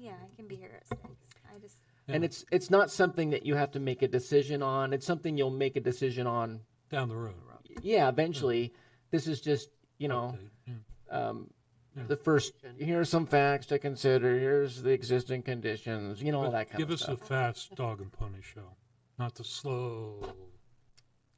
Yeah, I can be here at six. I just, And it's it's not something that you have to make a decision on. It's something you'll make a decision on. down the road. Yeah, eventually. This is just you know Yeah. um, the first. Here's some facts to consider. Here's the existing conditions. You know all But that kind Give of us stuff. a fast dog and pony show, not the slow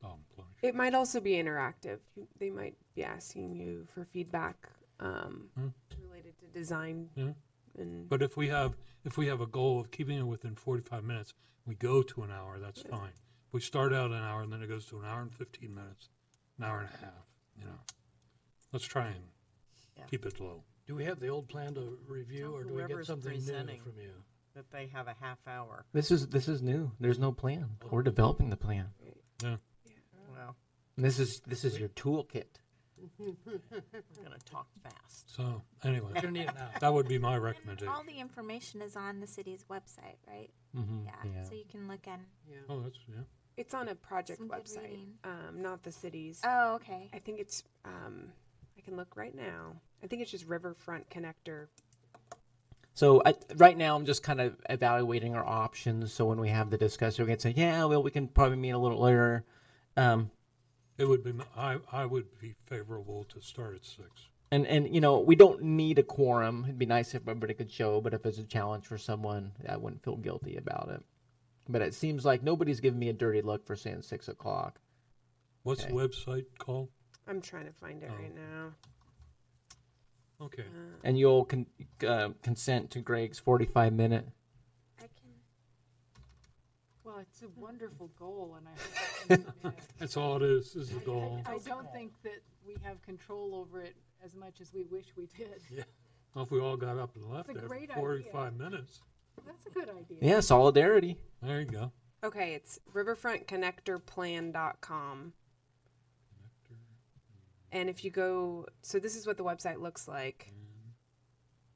dog and pony. It might also be interactive. You- They might be asking you for feedback um, Hmm. related to design Yeah. and But if we have, if we have a goal of keeping it within forty-five minutes, we go to an hour, that's fine. We start out an hour and then it goes to an hour and fifteen minutes, an hour and a half, you know. Let's try and keep it low. Do we have the old plan to review, or do we get Whoever's something new presenting. from you? that they have a half hour. This is this is new. There's no plan. We're developing the plan. Yeah, Well, And this is this is your toolkit. we're gonna talk fast. so anyway, We're gonna need it now. that would be my and all recommendation. the information is on the city's website, right? Mm-hmm. Yeah, so you can look in. Oh, that's, yeah. it's on a project Some good website, reading. um, not the city's. Oh, okay. I think it's, um, I can look right now. I think it's just Riverfront Connector. So I, right now, I'm just kind of evaluating our options. So when we have the discussion, we can say, yeah, well, we can probably meet a little earlier. Um, It would be, m- I, I would be favorable to start at six. and and you know, we don't need a quorum. It'd be nice if everybody could show, but if it's a challenge for someone, I wouldn't feel guilty about it. But it seems like nobody's giving me a dirty look for saying six o'clock. What's the Okay. website called? I'm trying to find it Oh. right now. Okay, And you'll con- uh, consent to Greg's 45 minute. I can. Well, it's a wonderful goal, and I hope that we- that's all it is, is the goal. I don't think that we have control over it as much as we wish we did. Well, If we all got up and left It's a after great idea. forty-five minutes, That's a good idea. Yeah, solidarity. there you go. Okay, it's riverfrontconnectorplan.com. And if you go, so this is what the website looks like. Hmm.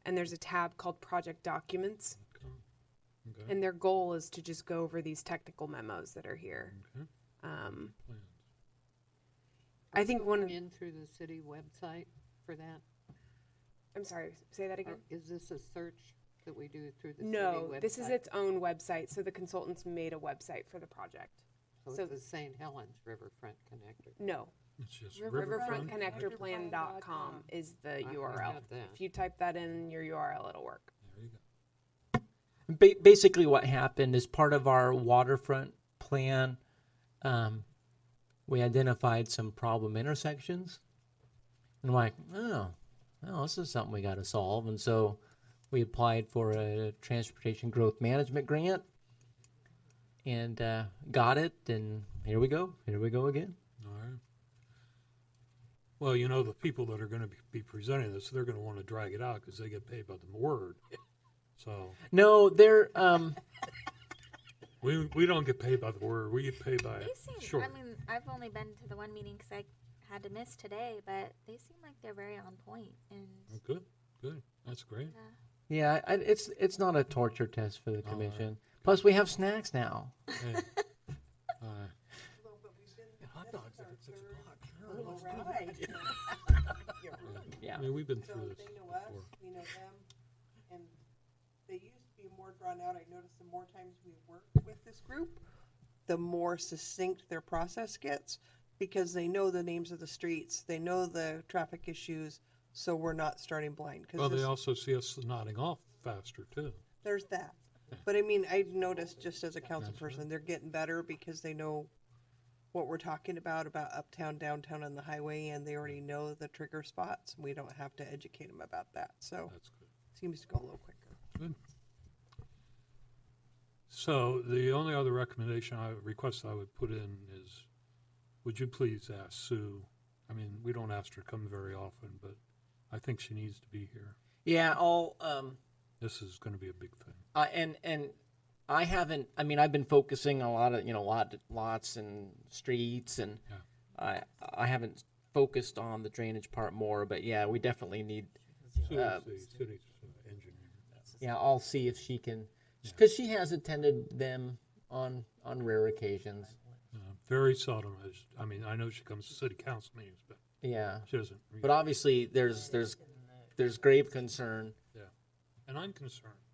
And there's a tab called Project Documents. Okay, And their goal is to just go over these technical memos that are here. okay, Um, plans. I think one of, In through the city website for that? I'm sorry, say that again. Is this a search that we do through the city website? No, Oh, this is its own website. So the consultants made a website for the project. So so- it's the St. Helens Riverfront Connector. No, It's just riverfront. riverfrontconnectorplan.com is the I URL. got that. If you type that in your URL, it'll work. There you go. ba- basically what happened is part of our waterfront plan um, we identified some problem intersections and like oh well, this is something we got to solve and so we applied for a transportation growth management grant and uh, got it and here we go here we go again All right. Well, you know, the people that are gonna be- be presenting this, they're gonna wanna drag it out because they get paid by the word. So, no they're um, we, we don't get paid by the word, we get paid by They seem. short. I mean, I've only been to the one meeting because I had to miss today, but they seem like they're very on point and. Good, good, that's great. yeah I, it's it's not a torture test for the commission plus we have snacks now Hey. All right. Hot dogs are at six o'clock. yeah I mean, we've been So through this they know us, before. we know them, and they used to be more drawn out. I noticed the more times we work with this group, the more succinct their process gets, because they know the names of the streets, they know the traffic issues, so we're not starting blind. Well, they Because also see us nodding off faster too. there's that. But I mean, I noticed just as a council person, they're getting better because they know what we're talking about, about uptown, downtown, and the highway, and they already know the trigger spots. We don't have to educate them about that, so That's good. seems to go a little quicker. Good. So the only other recommendation I, request I would put in is, would you please ask Sue? I mean, we don't ask her to come very often, but I think she needs to be here. yeah all um, This is gonna be a big thing. uh, and and I haven't. I mean, I've been focusing a lot of you know lot lots and streets, and Yeah. I I haven't focused on the drainage part more. But yeah, we definitely need. Sue Uh, is the city's uh, engineer. Yeah, I'll see if she can, because she has attended them on on rare occasions. Uh, Very seldom has, I mean, I know she comes to city council meetings, but Yeah, she doesn't. but obviously there's there's there's grave concern. And I'm concerned.